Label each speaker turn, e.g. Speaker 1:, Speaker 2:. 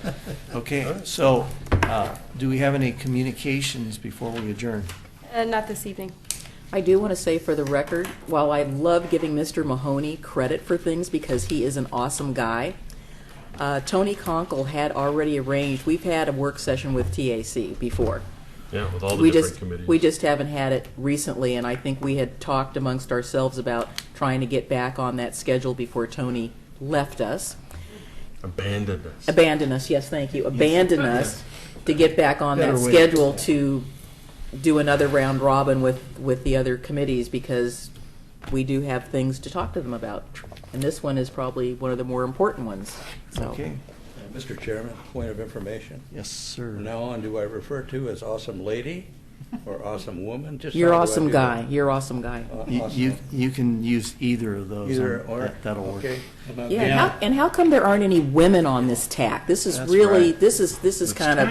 Speaker 1: Okay, so, uh, do we have any communications before we adjourn?
Speaker 2: Uh, Not this evening.
Speaker 3: I do want to say for the record, while I love giving Mr. Mahoney credit for things because he is an awesome guy, uh, Tony Conkle had already arranged, we've had a work session with TAC before.
Speaker 4: Yeah, with all the
Speaker 3: We
Speaker 4: different
Speaker 3: just,
Speaker 4: committees.
Speaker 3: we just haven't had it recently, and I think we had talked amongst ourselves about trying to get back on that schedule before Tony left us.
Speaker 4: abandoned us.
Speaker 3: Abandon us, yes, thank you, abandon us to get back on that
Speaker 1: Better way.
Speaker 3: schedule to do another round robin with, with the other committees because we do have things to talk to them about. And this one is probably one of the more important ones, so.
Speaker 1: Okay,
Speaker 5: Mr. Uh, Chairman, point of information.
Speaker 1: yes, sir.
Speaker 5: From now on, do I refer to as awesome lady or awesome woman? Just
Speaker 3: You're
Speaker 5: how do I
Speaker 3: awesome
Speaker 5: do that?
Speaker 3: guy, you're awesome guy.
Speaker 5: Aw-
Speaker 1: You- You,
Speaker 5: awesome.
Speaker 1: you can use either of those.
Speaker 5: Either
Speaker 1: um,
Speaker 5: or.
Speaker 1: that- That'll work.
Speaker 5: Okay. How about
Speaker 3: Yeah, and
Speaker 5: that?
Speaker 3: how, and how come there aren't any women on this tack? This is
Speaker 1: That's
Speaker 3: really,
Speaker 1: right.
Speaker 3: this is, this is
Speaker 1: That's
Speaker 3: kind of